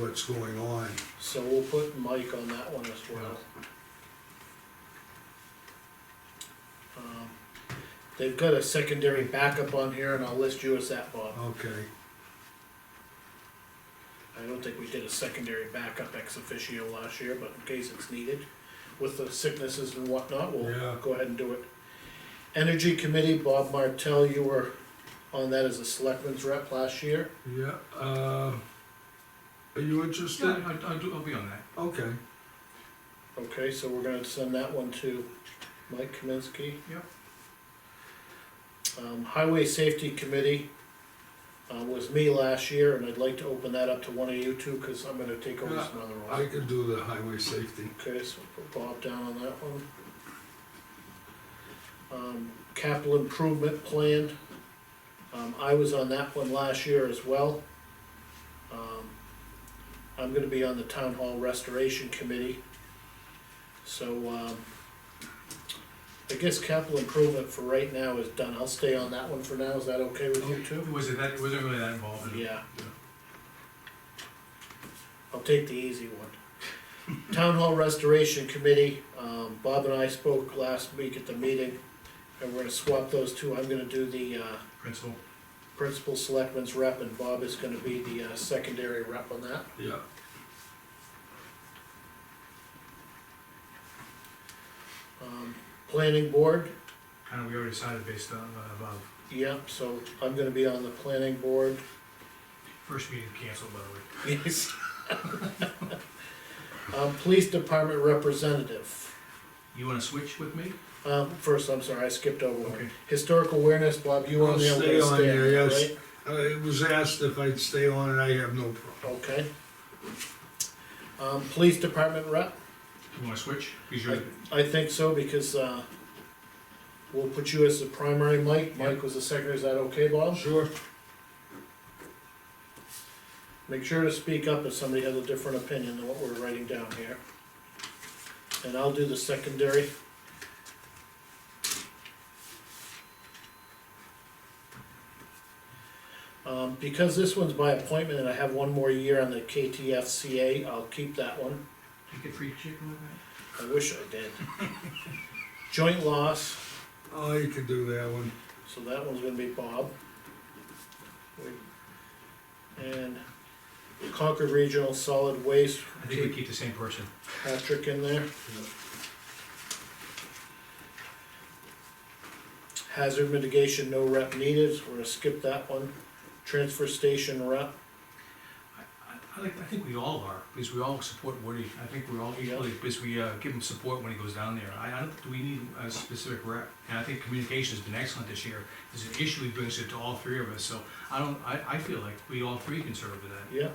what's going on. So we'll put Mike on that one as well. Um, They've got a secondary backup on here, and I'll list you as that, Bob. Okay, I don't think we did a secondary backup ex officio last year, but in case it's needed, with the sicknesses and whatnot, we'll Yeah. go ahead and do it. Energy Committee, Bob Martell, you were on that as a selectman's rep last year. yeah, uh, are you Yeah, interested? I, I do, I'll be on that. Okay, Okay, so we're gonna send that one to Mike Kaminsky. Yep. Um, Highway Safety Committee, uh, was me last year, and I'd like to open that up to one of you two, cause I'm gonna take over Yeah, some other I ones. can do the highway safety. Okay, so put Bob down on that one. Um, capital improvement plan, um, I was on that one last year as well. Um, I'm gonna be on the town hall restoration committee. So, um, I guess capital improvement for right now is done, I'll stay on that one for now, is that okay with you too? Was it that, wasn't really that involved in it? Yeah. I'll take the easy one. Town Hall Restoration Committee, um, Bob and I spoke last week at the meeting, and we're gonna swap those two, I'm gonna do the, uh, Principal, principal selectman's rep, and Bob is gonna be the, uh, secondary rep on that. Yeah, Um, planning board, kinda we already decided based on uh, above. yep, so I'm gonna be on the planning board. First meeting canceled, by the way. Yes. Um, police department representative, You wanna switch with me? um, first, I'm sorry, I skipped over one. Okay. Historical awareness, Bob, you on I'll there, I'm stay gonna on stay, there, yes. right? uh, it was asked if I'd stay on and I have no problem. Okay. Um, police department rep, You wanna switch? Because you're, I think so, because, uh, we'll put you as the primary, Mike, Mike was the secretary, is that okay, Bob? Sure. Make sure to speak up if somebody has a different opinion than what we're writing down here. And I'll do the secondary. Um, because this one's by appointment and I have one more year on the KTFCA, I'll keep that one. you get free chicken with that? I wish I did. Joint loss, Oh, you can do that one. so that one's gonna be Bob. And Concord Regional Solid Waste, I think we keep the same person. Patrick in there. Hazard mitigation, no rep needed, we're gonna skip that one. Transfer station rep, I, I- I like, I think we all are, because we all support Woody. I think we're all equally, because we, uh, give him support when he goes down there. I, I don't, do we need a specific rep? And I think communication's been excellent this year. There's an issue he brings it to all three of us, so I don't, I, I feel like we all three can serve with that. yeah,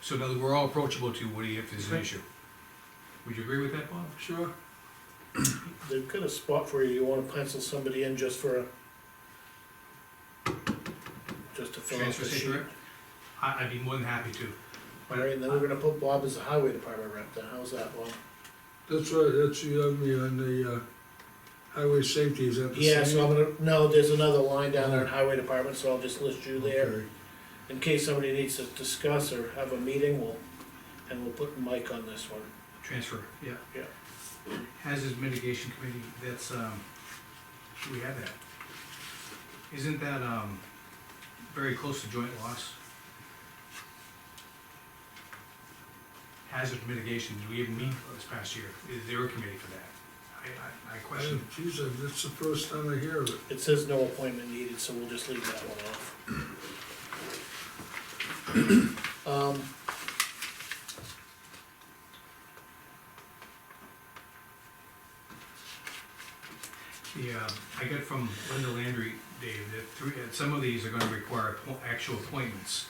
So now we're all approachable to Woody if there's an Okay. issue. Would you agree with that, Bob? Sure. they've got a spot for you, you wanna pencil somebody in just for a. Just to fill out Transfer the station sheet. rep? I, I'd be more than happy to. All right, and then we're gonna put Bob as the highway department rep, then, how's that, Bob? That's right, that's you have me on the, uh, highway safety, is that the same? Yeah, so I'm gonna, no, there's another line down there in highway department, so I'll just list you there, Okay. in case somebody needs to discuss or have a meeting, we'll, and we'll put Mike on this one. Transfer, yeah. Yeah. Hazard mitigation committee, that's, um, should we have that? Isn't that, um, very close to joint loss? Hazard mitigation, did we even meet this past year? Is there a committee for that? I, I, I I- question. Geez, I- that's the first time I hear of it. It says no appointment needed, so we'll just leave that one off. Um. The, uh, I got from Linda Landry, Dave, that three, that some of these are gonna require appo- actual appointments.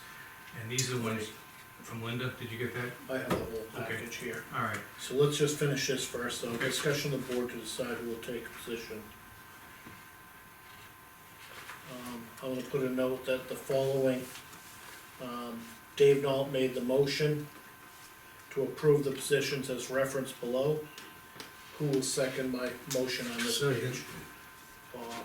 And these are the ones from Linda, did you get that? I have the whole Okay. package here, All right, so let's just finish this first, though, Okay. discussion of the board to decide who will take position. Um, I'm gonna put a note that the following, um, Dave Nault made the motion to approve the positions as referenced below. Who will second my motion on this Second. page? Bob.